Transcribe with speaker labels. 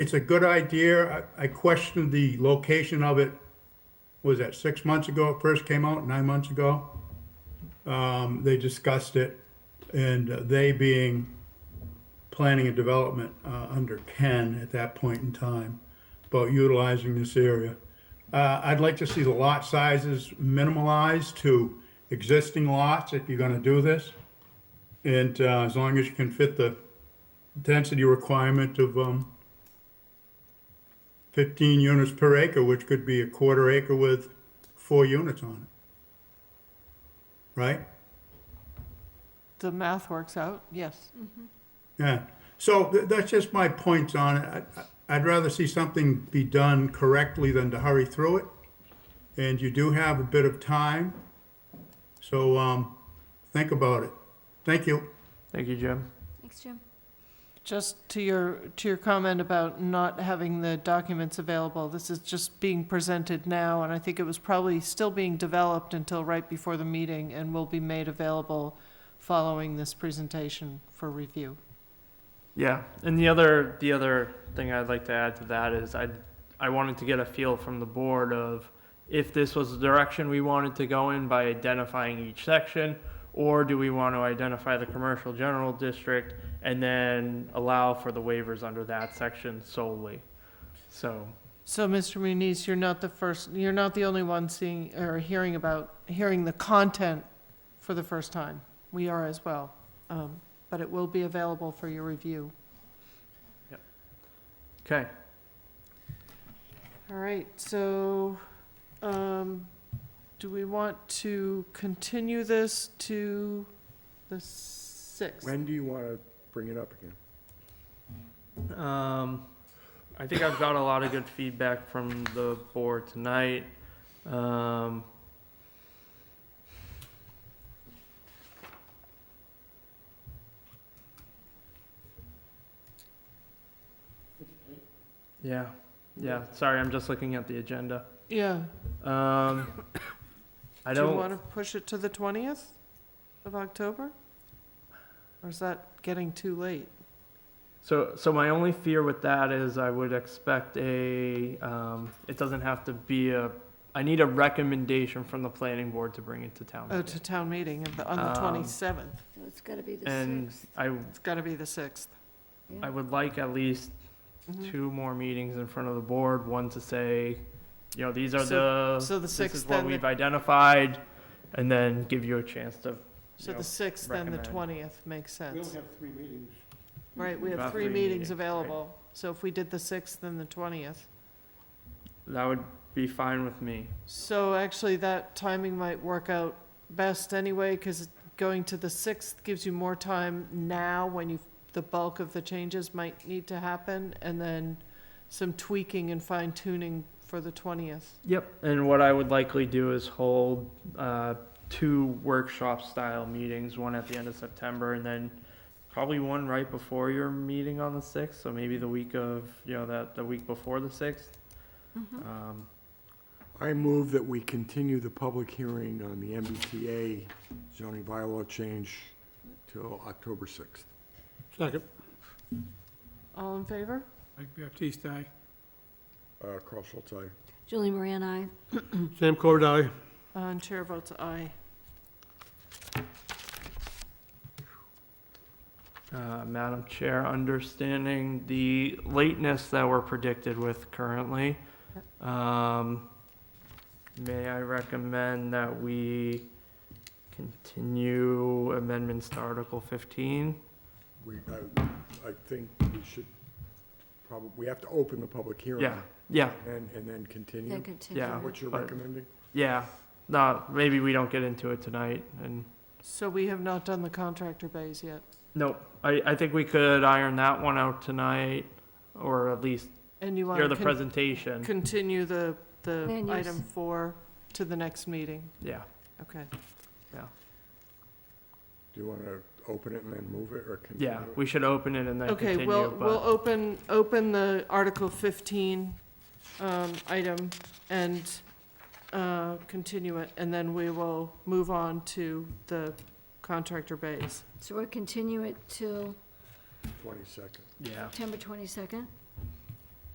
Speaker 1: it's a good idea. I I questioned the location of it. Was that six months ago it first came out, nine months ago? Um, They discussed it, and uh, they being planning and development uh, under Ken at that point in time about utilizing this area. Uh, I'd like to see the lot sizes minimalized to existing lots if you're going to do this. And uh, as long as you can fit the density requirement of um, 15 units per acre, which could be a quarter acre with four units on it. Right?
Speaker 2: The math works out, yes.
Speaker 1: Yeah, so th- that's just my points on it. I- I- I'd rather see something be done correctly than to hurry through it. And you do have a bit of time, so um, think about it. Thank you.
Speaker 3: Thank you, Jim.
Speaker 4: Thanks, Jim.
Speaker 2: Just to your, to your comment about not having the documents available, this is just being presented now, and I think it was probably still being developed until right before the meeting, and will be made available following this presentation for review.
Speaker 3: Yeah, and the other the other thing I'd like to add to that is I I wanted to get a feel from the board of if this was the direction we wanted to go in by identifying each section, or do we want to identify the commercial general district and then allow for the waivers under that section solely? So
Speaker 2: So, Mr. Muniz, you're not the first, you're not the only one seeing, or hearing about, hearing the content for the first time. We are as well, um, but it will be available for your review.
Speaker 3: okay,
Speaker 2: All right, so, um, do we want to continue this to the sixth?
Speaker 5: When do you want to bring it up again?
Speaker 3: um, I think I've got a lot of good feedback from the board tonight. Um, yeah, yeah. Sorry, I'm just looking at the agenda.
Speaker 2: Yeah,
Speaker 3: Um, I
Speaker 2: do you
Speaker 3: don't.
Speaker 2: wanna push it to the twentieth of October? Or is that getting too late?
Speaker 3: So, so my only fear with that is I would expect a, um, it doesn't have to be a, I need a recommendation from the planning board to bring it to town.
Speaker 2: Oh,
Speaker 3: meeting.
Speaker 2: to town meeting of the- on the
Speaker 3: Um,
Speaker 2: twenty-seventh,
Speaker 4: So it's gotta be the
Speaker 3: And
Speaker 4: sixth.
Speaker 3: I,
Speaker 2: it's gotta be the sixth.
Speaker 3: I would like at least
Speaker 2: Mhm.
Speaker 3: two more meetings in front of the board, one to say, you know, these
Speaker 2: So-
Speaker 3: are the,
Speaker 2: so the
Speaker 3: this is
Speaker 2: sixth,
Speaker 3: what
Speaker 2: then the-
Speaker 3: we've identified, and then give you a chance to,
Speaker 2: So
Speaker 3: you
Speaker 2: the
Speaker 3: know,
Speaker 2: sixth and the
Speaker 3: recommend.
Speaker 2: twentieth makes sense.
Speaker 5: have three meetings.
Speaker 2: Right, we
Speaker 3: About
Speaker 2: have three
Speaker 3: three
Speaker 2: meetings
Speaker 3: meetings, right.
Speaker 2: available, so if we did the sixth and the twentieth.
Speaker 3: that would be fine with me.
Speaker 2: So actually, that timing might work out best anyway, because going to the sixth gives you more time now when you, the bulk of the changes might need to happen, and then some tweaking and fine tuning for the twentieth.
Speaker 3: Yep, and what I would likely do is hold uh, two workshop-style meetings, one at the end of September, and then probably one right before your meeting on the 6th, so maybe the week of, you know, that, the week before the 6th.
Speaker 4: Mhm.
Speaker 3: Um,
Speaker 5: I move that we continue the public hearing on the MBTA zoning bylaw change till October 6th.
Speaker 6: Second.
Speaker 2: All in favor?
Speaker 6: Mike Baptiste, aye.
Speaker 5: Uh, Carl Schultz, aye.
Speaker 4: Julie Moran, I.
Speaker 6: Sam Corbett, aye.
Speaker 2: Uh, And chair votes aye.
Speaker 3: uh, Madam Chair, understanding the lateness that we're predicted with currently, um, may I recommend that we continue amendments to Article 15?
Speaker 5: We, I, I think we should probably, we have to open the public hearing.
Speaker 3: Yeah, yeah,
Speaker 5: And, and then continue.
Speaker 4: Then continue.
Speaker 3: Yeah.
Speaker 5: What you're
Speaker 3: But-
Speaker 5: recommending?
Speaker 3: Yeah, no, maybe we don't get into it tonight, and,
Speaker 2: So we have not done the contractor bays yet,
Speaker 3: nope, I, I think we could iron that one out tonight, or at least
Speaker 2: and you
Speaker 3: hear
Speaker 2: want
Speaker 3: the
Speaker 2: to
Speaker 3: presentation,
Speaker 2: continue the, the
Speaker 4: Land use.
Speaker 2: item four to the next meeting,
Speaker 3: yeah.
Speaker 2: okay.
Speaker 5: Do you want to open it and then move it, or continue?
Speaker 3: Yeah,
Speaker 5: it?
Speaker 3: we should open it and then
Speaker 2: Okay,
Speaker 3: continue,
Speaker 2: we'll, we'll
Speaker 3: but,
Speaker 2: open, open the Article 15 um, item and uh, continue it, and then we will move on to the contractor base.
Speaker 4: So we'll continue it till
Speaker 5: 22nd.
Speaker 3: yeah,
Speaker 4: September twenty-second?